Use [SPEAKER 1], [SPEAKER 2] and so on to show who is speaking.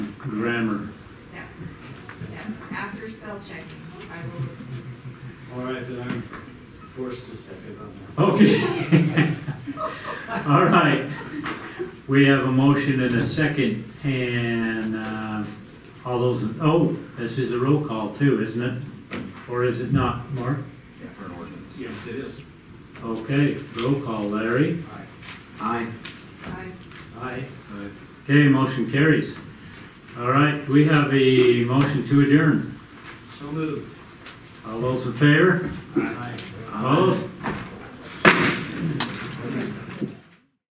[SPEAKER 1] grammar.
[SPEAKER 2] Yeah, yeah, after spell check, I will,
[SPEAKER 3] All right, then I'm forced to second on that.
[SPEAKER 1] Okay. All right. We have a motion and a second, and uh, all those, oh, this is a roll call too, isn't it? Or is it not, Mark?
[SPEAKER 4] for an ordinance.
[SPEAKER 3] Yes, it is.
[SPEAKER 1] Okay, roll call, Larry.
[SPEAKER 3] Aye.
[SPEAKER 4] Aye.
[SPEAKER 2] I,
[SPEAKER 3] Aye.
[SPEAKER 1] Okay, motion carries. All right, we have a motion to adjourn.
[SPEAKER 3] So moved.
[SPEAKER 1] All those in favor?
[SPEAKER 3] Aye.
[SPEAKER 1] Opposed?